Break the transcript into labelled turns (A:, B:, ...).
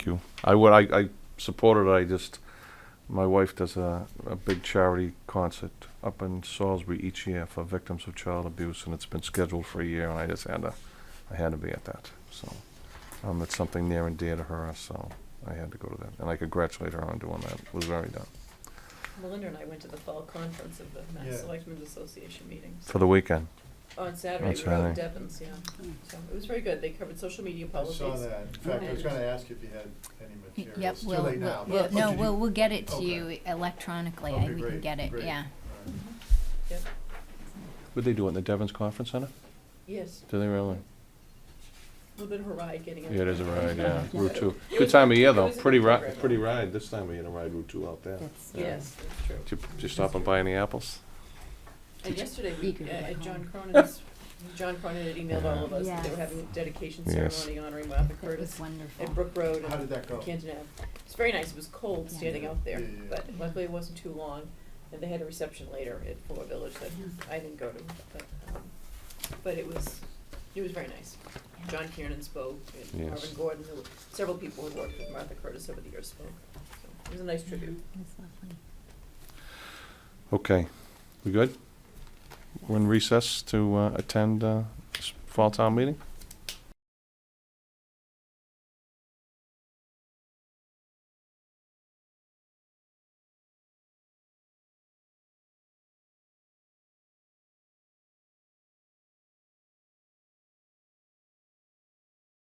A: you. I would, I, I supported, I just, my wife does a, a big charity concert up in Salisbury each year for victims of child abuse, and it's been scheduled for a year, and I just had to, I had to be at that, so. Um, it's something near and dear to her, so I had to go to that, and I congratulate her on doing that, it was very done,
B: Melinda and I went to the fall conference of the
C: Yeah.
B: Mass Selectmen's Association meetings.
A: for the weekend.
B: On
A: On
B: Saturday, we were out
A: Saturday.
B: in Devon's, yeah. So it was very good. They covered social media
C: I saw
B: policies.
C: that. In fact, I was gonna ask you if you had any materials.
D: Yep,
C: It's
D: we'll,
C: Too late now.
D: we'll,
C: but-
D: we'll-
C: but
D: no,
C: did you-
D: we'll, we'll get it to
C: Okay.
D: you electronically,
C: Okay,
D: I- we can
C: great,
D: get it,
C: great.
D: yeah.
C: All
B: Mm-hmm.
C: right.
A: Would they do it in the Devon's Conference Center?
B: Yes,
A: Do they really?
B: a little bit of a ride getting up.
A: Yeah, it is a ride, yeah, Route Two.
B: It
A: Good
B: was-
A: time of year
B: it
A: though,
B: was a
A: pretty
B: good
A: ri-
B: program.
A: pretty ride, this time of year to ride Route Two out there.
D: That's-
A: Yeah.
B: Yes, that's true.
A: Did you, did you stop and buy any apples?
B: And yesterday, we,
D: Eager to
B: uh,
D: get
B: John
D: home.
B: Cronin's, John Cronin had emailed all of us that they were
D: Yes.
B: having a dedication
A: Yes.
B: ceremony honoring Martha
D: That was
B: Curtis
D: wonderful.
B: at Brook Road
C: How
B: and
C: did that go?
B: Canton Ave. It's very nice. It was cold
D: Yeah.
B: standing out there,
C: Yeah, yeah, yeah.
B: but luckily it wasn't too long. And they had a reception later at Fuller Village that I didn't go to, but, um, but it was, it was very nice.
D: Yeah.
B: John Kiernan spoke, and
A: Yes.
B: Marvin Gordon, who, several people who worked with Martha Curtis over the years spoke. So It was a nice
D: Yeah,
B: tribute.
D: it was lovely.
A: Okay, we good? We're in recess to uh, attend uh, s- fall town meeting?